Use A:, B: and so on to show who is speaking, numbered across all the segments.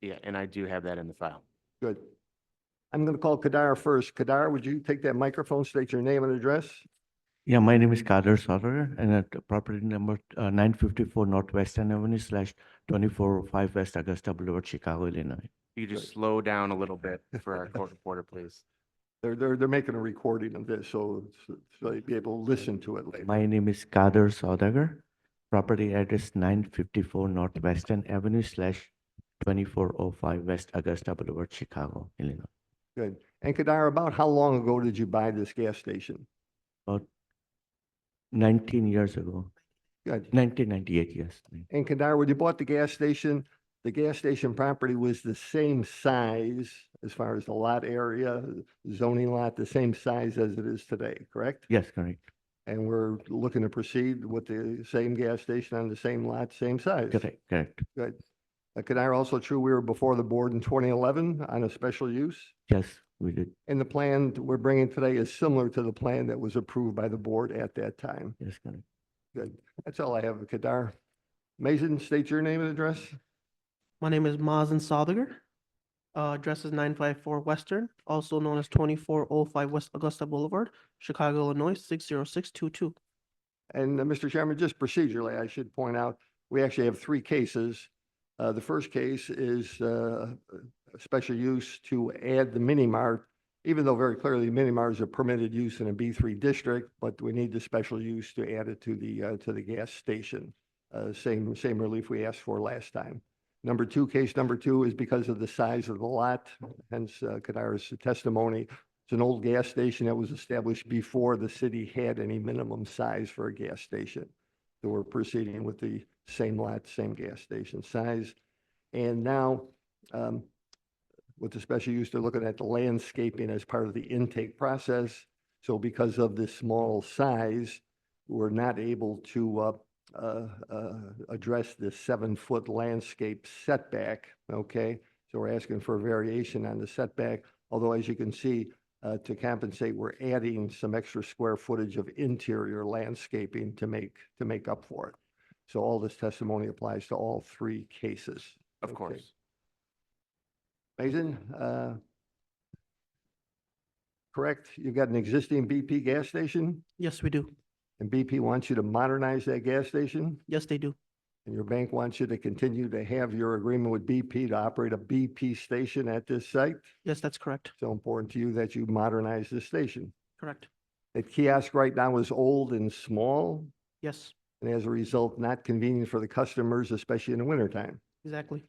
A: Yeah, and I do have that in the file.
B: Good. I'm going to call Kadar first. Kadar, would you take that microphone, state your name and address?
C: Yeah, my name is Kader Sarwar and at the property number uh, 954 Northwestern Avenue slash 245 West Augusta Boulevard, Chicago, Illinois.
A: You could just
B: Good.
A: slow down a little bit for our court reporter, please.
B: They're, they're, they're making a recording of this, so, so you'll be able to listen to it later.
C: My name is Kader Sarwar. Property address 954 Northwestern Avenue slash 2405 West Augusta Boulevard, Chicago, Illinois.
B: Good. And Kadar, about how long ago did you buy this gas station?
C: 19 years ago,
B: Good.
C: 1998, yes.
B: And Kadar, when you bought the gas station, the gas station property was the same size as far as the lot area, zoning lot, the same size as it is today, correct?
C: Yes, correct,
B: And we're looking to proceed with the same gas station on the same lot, same size.
C: correct, correct.
B: Good. Uh, Kadar, also true, we were before the board in 2011 on a special use.
C: Yes, we did,
B: And the plan that we're bringing today is similar to the plan that was approved by the board at that time.
C: yes, correct.
B: Good. That's all I have, Kadar. Mason, state your name and address.
D: My name is Mazen Sodiger. Uh, address is nine five four Western, also known as twenty-four oh five West Augusta Boulevard, Chicago, Illinois, six zero six two two.
B: And uh, Mr. Chairman, just procedurally, I should point out, we actually have three cases. Uh, The first case is uh, a special use to add the mini mart, even though very clearly mini mart is a permitted use in a B3 district, but we need the special use to add it to the, uh, to the gas station. Uh, Same, same relief we asked for last time. Number two, case number two is because of the size of the lot, hence uh, Kadara's testimony. It's an old gas station that was established before the city had any minimum size for a gas station. So we're proceeding with the same lot, same gas station size. And now, um, with the special use, they're looking at the landscaping as part of the intake process. So because of this small size, we're not able to, uh, uh, uh, address this seven-foot landscape setback, okay? So we're asking for a variation on the setback, although as you can see, uh, to compensate, we're adding some extra square footage of interior landscaping to make, to make up for it. So all this testimony applies to all three cases.
A: Of
B: Okay.
A: course.
B: Mason, uh, correct, you've got an existing BP gas station,
D: Yes, we do.
B: and BP wants you to modernize that gas station,
D: Yes, they do.
B: and your bank wants you to continue to have your agreement with BP to operate a BP station at this site.
D: Yes, that's correct.
B: So important to you that you modernize this station.
D: Correct.
B: That kiosk right now is old and small,
D: Yes,
B: and as a result, not convenient for the customers, especially in the wintertime.
D: exactly.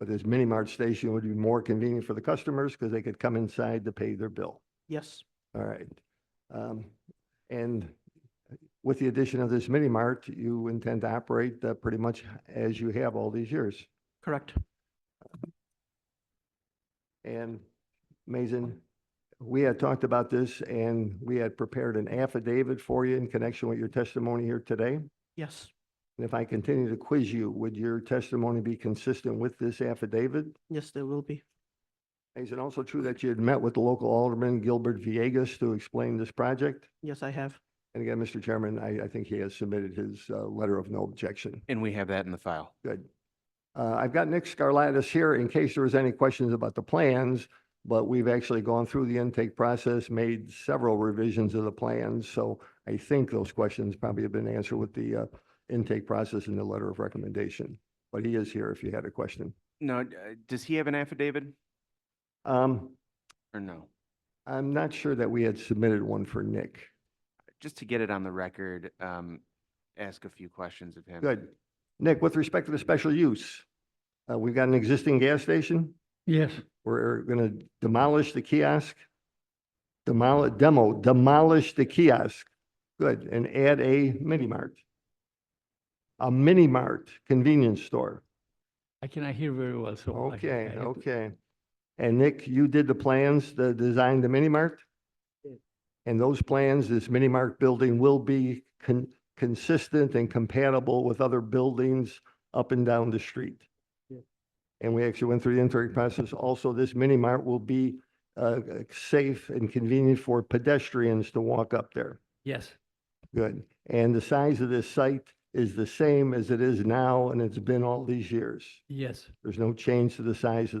B: But this mini mart station would be more convenient for the customers because they could come inside to pay their bill.
D: Yes,
B: All right. Um, And with the addition of this mini mart, you intend to operate uh, pretty much as you have all these years.
D: correct.
B: And Mason, we had talked about this and we had prepared an affidavit for you in connection with your testimony here today.
D: Yes,
B: And if I continue to quiz you, would your testimony be consistent with this affidavit?
D: yes, there will be.
B: Is it also true that you had met with the local alderman, Gilbert Viegas, to explain this project?
D: Yes, I have.
B: And again, Mr. Chairman, I, I think he has submitted his uh, letter of no objection.
A: And we have that in the file.
B: Good. Uh, I've got Nick Scarlatus here in case there was any questions about the plans, but we've actually gone through the intake process, made several revisions of the plans. So I think those questions probably have been answered with the uh, intake process and the letter of recommendation. But he is here if you had a question.
A: No, uh, does he have an affidavit
B: Um,
A: or no?
B: I'm not sure that we had submitted one for Nick.
A: Just to get it on the record, um, ask a few questions of him.
B: Good. Nick, with respect to the special use, uh, we've got an existing gas station?
E: Yes,
B: We're gonna demolish the kiosk? Demolish, demo, demolish the kiosk. Good, and add a mini mart. A mini mart convenience store.
E: I cannot hear very well, so. I- I
B: Okay,
E: have to-
B: okay. And Nick, you did the plans, the design, the mini mart? And those plans, this mini mart building will be con- consistent and compatible with other buildings up and down the street.
E: Yeah.
B: And we actually went through the intake process. Also, this mini mart will be uh, safe and convenient for pedestrians to walk up there.
E: Yes,
B: Good. And the size of this site is the same as it is now and it's been all these years.
E: Yes.
B: There's no change to the size of the